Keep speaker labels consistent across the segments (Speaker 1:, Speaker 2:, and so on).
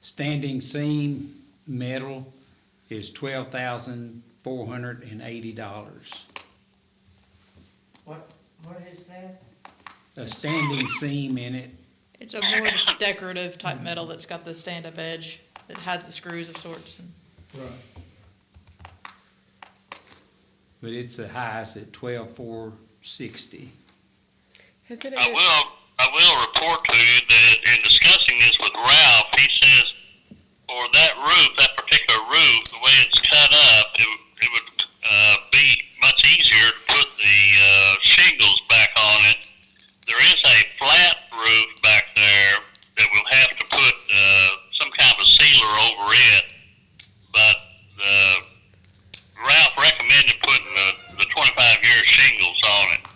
Speaker 1: standing seam metal is twelve thousand four hundred and eighty dollars.
Speaker 2: What, what is that?
Speaker 1: A standing seam in it,
Speaker 3: It's a more just decorative type metal that's got the stand-up edge that has the screws of sorts. And
Speaker 4: Right.
Speaker 1: but it's the highest at twelve four sixty.
Speaker 5: Has it
Speaker 6: I
Speaker 5: ever,
Speaker 6: will, I will report to you that in discussing this with Ralph, he says for that roof, that particular roof, the way it's cut up, it, would- it would, uh, be much easier to put the, uh, shingles back on it. There is a flat roof back there that we'll have to put, uh, some kind of a sealer over it. But, uh, Ralph recommended putting the, the twenty-five year shingles on it.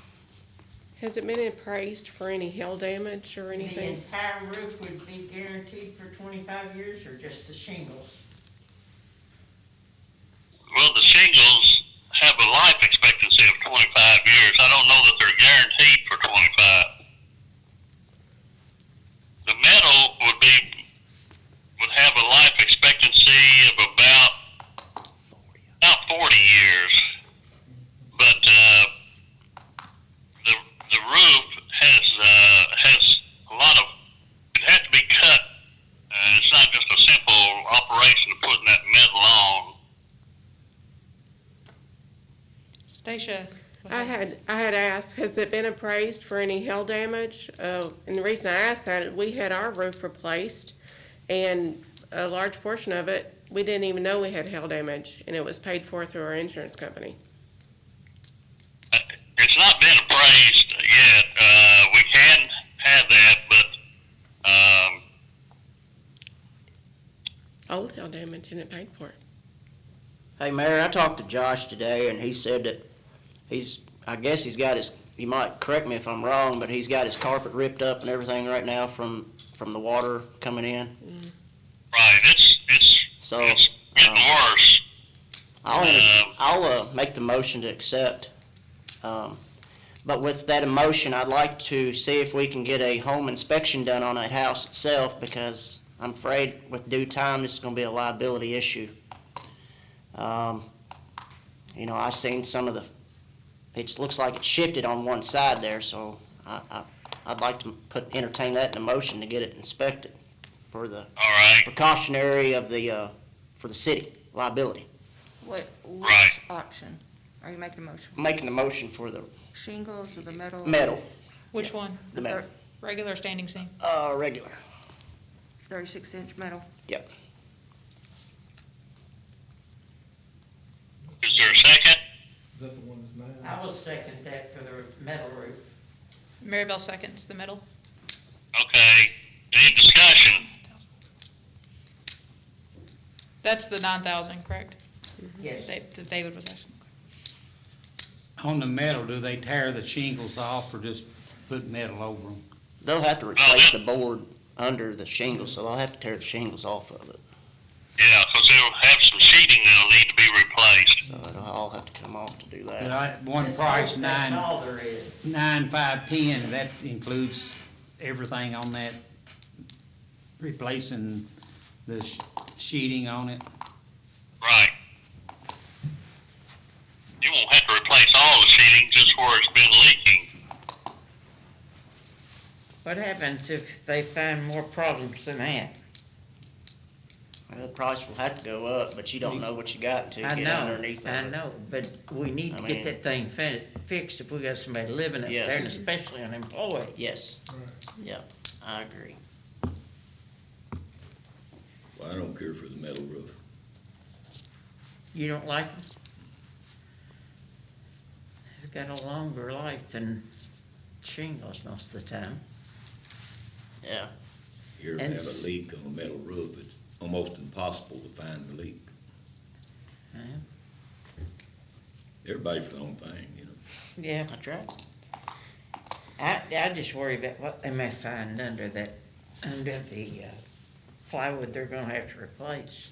Speaker 5: has it been appraised for any hail damage or
Speaker 2: The
Speaker 5: anything?
Speaker 2: entire roof would be guaranteed for twenty-five years or just the shingles?
Speaker 6: Well, the shingles have a life expectancy of 25 years. I don't know that they're guaranteed for 25. The metal would be would have a life expectancy of about about 40 years, but uh, the the roof has uh, has a lot of it has to be cut. Uh, it's not just a simple operation of putting that metal on.
Speaker 3: Stacia.
Speaker 5: I had, I had asked, has it been appraised for any hail damage? Uh, and the reason I asked that, we had our roof replaced and a large portion of it, we didn't even know we had hail damage and it was paid for through our insurance company.
Speaker 6: It's not been appraised yet. Uh, we can have that, but um,
Speaker 5: Old hail damage and it paid for it.
Speaker 7: Hey, Mayor, I talked to Josh today, and he said that he's, I guess he's got his, you might correct me if I'm wrong, but he's got his carpet ripped up and everything right now from, from the water coming in.
Speaker 6: right, it's it's
Speaker 7: So,
Speaker 6: it's getting
Speaker 7: um,
Speaker 6: worse.
Speaker 7: I'll,
Speaker 6: Um,
Speaker 7: I'll, uh, make the motion to accept. Um, but with that emotion, I'd like to see if we can get a home inspection done on that house itself, because I'm afraid with due time, this is gonna be a liability issue. Um, you know, I've seen some of the, it looks like it shifted on one side there, so I, I, I'd like to put, entertain that in a motion to get it inspected for the
Speaker 6: All right,
Speaker 7: precautionary of the, uh, for the city liability.
Speaker 8: What,
Speaker 6: Right.
Speaker 8: which option? Are you making a motion?
Speaker 7: making the motion for the
Speaker 8: Shingles or the metal?
Speaker 7: metal,
Speaker 3: Which one?
Speaker 7: the metal,
Speaker 3: Regular standing seam.
Speaker 7: uh, regular.
Speaker 8: Thirty-six inch metal.
Speaker 7: Yep.
Speaker 6: is there a second?
Speaker 4: Is that the one that's mine?
Speaker 2: I will second that for the metal roof.
Speaker 3: Maribel seconds the metal.
Speaker 6: Okay, any discussion?
Speaker 3: That's the nine thousand, correct?
Speaker 2: Yes,
Speaker 3: Da- That David was asking.
Speaker 1: On the metal, do they tear the shingles off or just put metal over them?
Speaker 7: They'll have to replace the board under the shingles, so they'll have to tear the shingles off of it.
Speaker 6: Yeah, because they'll have some sheeting that'll need to be replaced.
Speaker 7: So it'll all have to come off to do
Speaker 1: But
Speaker 7: that.
Speaker 1: I, one
Speaker 2: That's
Speaker 1: price,
Speaker 2: all- That's
Speaker 1: nine,
Speaker 2: all there is.
Speaker 1: nine, five, ten, that includes everything on that, replacing the sh- sheeting on it.
Speaker 6: Right. You won't have to replace all the sheeting, just where it's been leaking.
Speaker 2: What happens if they find more problems than that?
Speaker 7: The price will have to go up, but you don't know what you got until
Speaker 2: I
Speaker 7: you get
Speaker 2: know,
Speaker 7: underneath
Speaker 2: I
Speaker 7: of it.
Speaker 2: know, but we need
Speaker 7: I
Speaker 2: to get
Speaker 7: mean-
Speaker 2: that thing fi- fixed if we got somebody living up there,
Speaker 7: Yes.
Speaker 2: and especially an employee.
Speaker 7: Yes,
Speaker 4: Right.
Speaker 7: yeah, I agree.
Speaker 9: Well, I don't care for the metal roof.
Speaker 2: You don't like them? They've got a longer life than shingles most of the time.
Speaker 7: Yeah,
Speaker 9: Here we
Speaker 2: And
Speaker 9: have
Speaker 2: s-
Speaker 9: a leak on a metal roof, it's almost impossible to find the leak.
Speaker 2: huh?
Speaker 9: Everybody's for their own thing, you know.
Speaker 2: Yeah,
Speaker 7: that's right.
Speaker 2: I, I just worry about what they may find under that, under the uh, plywood they're gonna have to replace.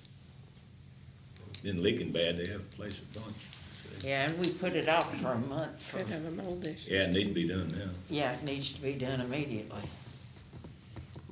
Speaker 9: Been leaking bad, they have to place a bunch.
Speaker 2: Yeah, and we put it off for a month. for-
Speaker 5: Could have a mold issue.
Speaker 9: Yeah, it need to be done now.
Speaker 2: Yeah, it needs to be done immediately.